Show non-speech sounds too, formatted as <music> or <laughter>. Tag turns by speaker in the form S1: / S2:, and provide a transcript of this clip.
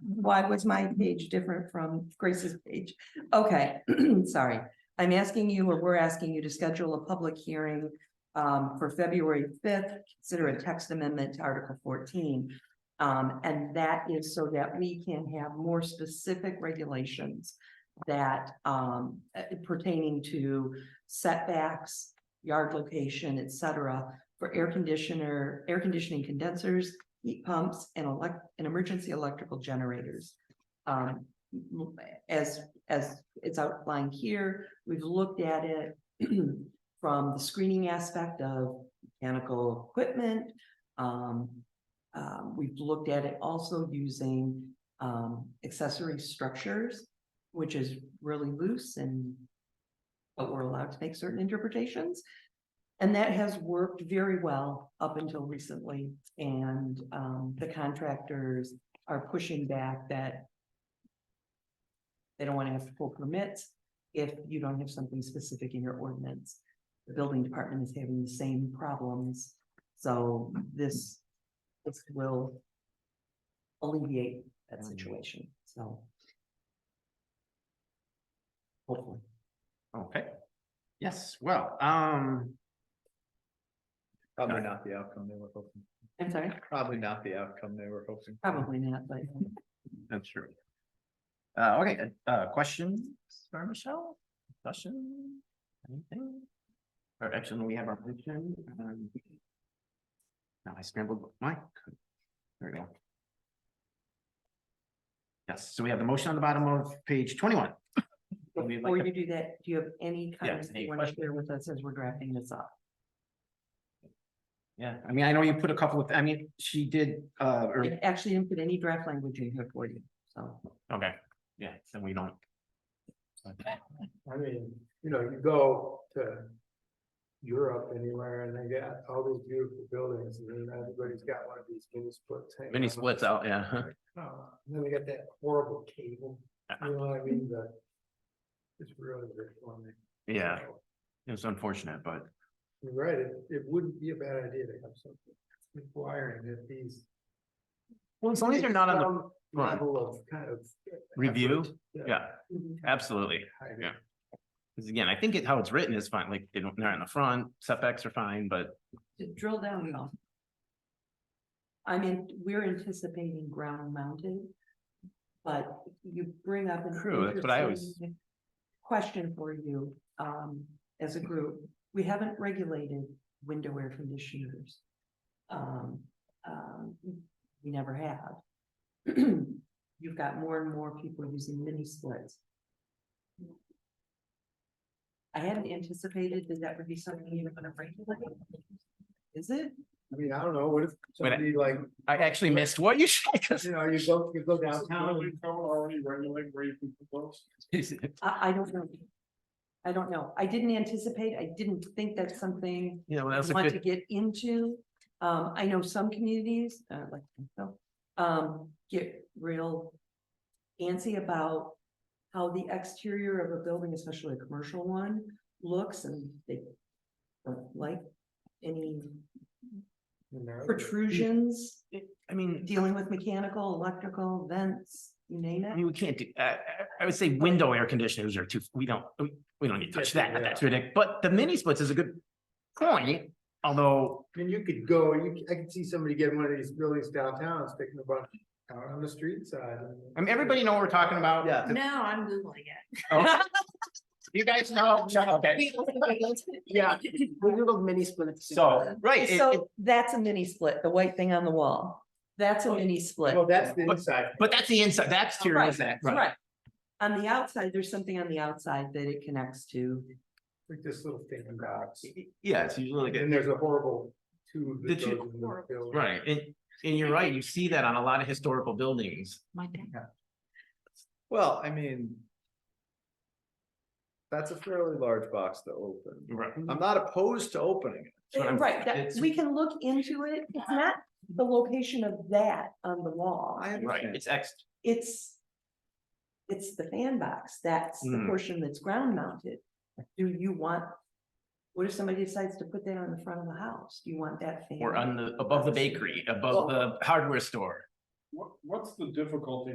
S1: why was my page different from Grace's page? Okay, <clears throat> sorry. I'm asking you, or we're asking you to schedule a public hearing um, for February fifth, consider a text amendment to Article fourteen. Um, and that is so that we can have more specific regulations that um pertaining to setbacks, yard location, et cetera, for air conditioner, air conditioning condensers, heat pumps, and elect, and emergency electrical generators. Um, as, as it's outlined here, we've looked at it <clears throat> from the screening aspect of mechanical equipment. Um, um, we've looked at it also using, um, accessory structures, which is really loose and but we're allowed to make certain interpretations. And that has worked very well up until recently, and um, the contractors are pushing back that they don't want to have to pull permits if you don't have something specific in your ordinance. The building department is having the same problems, so this this will alleviate that situation, so. Hopefully.
S2: Okay. Yes, well, um,
S3: Probably not the outcome they were hoping,
S1: I'm sorry,
S3: probably not the outcome they were hoping.
S1: probably not, but
S2: that's true. Uh, okay, uh, questions for Michelle? Discussion? Anything? Or actually, we have our motion. um, Now I scrambled my. There we go. Yes, so we have the motion on the bottom of page <laughs> twenty-one. Would we like
S1: before
S2: to-
S1: you do that, do you have any comments
S2: any
S1: you want to
S2: questions?
S1: share with us as we're drafting this up?
S2: Yeah, I mean, I know you put a couple of, I mean, she did, uh, or
S1: I Actually, didn't put any draft language in here for you, so.
S2: Okay, yeah, then we don't.
S4: I mean, you know, you go to Europe anywhere and they got all these beautiful buildings and then everybody's got one of these mini splits. hanging
S2: Mini
S4: on.
S2: splits out, yeah.
S4: Oh, And then they got that horrible cable,
S2: Uh-huh.
S4: you know what I mean, the. It's really very funny.
S2: Yeah, it was unfortunate, but
S4: You're right, it, it wouldn't be a bad idea to have something requiring that these.
S2: well, as long as you're not on
S4: Some
S2: go on.
S4: Level of kind of.
S2: the review,
S4: effort,
S2: yeah, absolutely.
S4: I
S2: yeah. Because again, I think it, how it's written is fine, like they don't, they're in the front, setbacks are fine, but
S1: To drill down at all. I mean, we're anticipating ground mounted, but you bring up. an
S2: True, that's what I always-
S1: interesting Question for you, um, as a group, we haven't regulated window air conditioners. Um, um, we never have. <clears throat> You've got more and more people using mini splits. I hadn't anticipated that that would be something you were gonna regulate. Is it?
S4: I mean, I don't know, what if
S2: But I-
S4: somebody like,
S2: I actually missed what you said. 'cause- <laughs>
S4: you know, you go, you go downtown. and-
S3: already regulate where you can put those.
S2: You
S1: I, I don't know. I don't know. I didn't anticipate, I didn't think that's something
S2: know,
S1: I
S2: that's a
S1: want to
S2: good,
S1: get into. Um, I know some communities, uh, like, myself, um, get real antsy about how the exterior of a building, especially a commercial one, looks and they don't like any
S4: you know,
S1: protrusions,
S2: I mean,
S1: dealing with mechanical, electrical vents, you name
S2: I
S1: it.
S2: mean, we can't do, I, I, I would say window air conditioners are too, we don't, we- we don't need to touch that, that's ridiculous. But the mini splits is a good point, although
S4: I mean, you could go, you, c- I could see somebody getting one of these buildings downtown, sticking a bunch out on the street side.
S2: I mean, everybody know what we're talking about.
S4: Yeah.
S5: No, I'm Googling it.
S2: Oh. <laughs> You guys know, no, okay, yeah,
S1: <laughs>
S5: Google mini splits.
S2: so, right, it- it-
S1: So that's a mini split, the white thing on the wall. That's
S2: Oh,
S1: a mini split.
S4: Well, that's the
S2: But-
S4: inside.
S2: but that's the inside, that's to your
S1: Right,
S2: inside, right,
S1: Right. On the outside, there's something on the outside that it connects to.
S4: Like this little thing in box.
S2: yeah, it's usually
S4: And
S2: good,
S4: there's a horrible tube that
S2: The tube-
S4: goes in the
S2: <laughs>
S4: building.
S2: right, and, and you're right, you see that on a lot of historical buildings.
S5: My dad.
S3: Well, I mean. That's a fairly large box to open.
S2: Right.
S3: I'm not opposed to opening it.
S2: That's what I'm-
S1: Right, that,
S2: it's-
S1: we can look into it. It's not the location of that on the wall.
S3: I
S2: Right,
S3: understand.
S2: it's ex,
S1: It's, it's the fan box. That's the
S2: Hmm.
S1: portion that's ground mounted. Do you want, what if somebody decides to put that on the front of the house? Do you want that fan?
S2: or on the, above the bakery, above the hardware store.
S6: What, what's the difficulty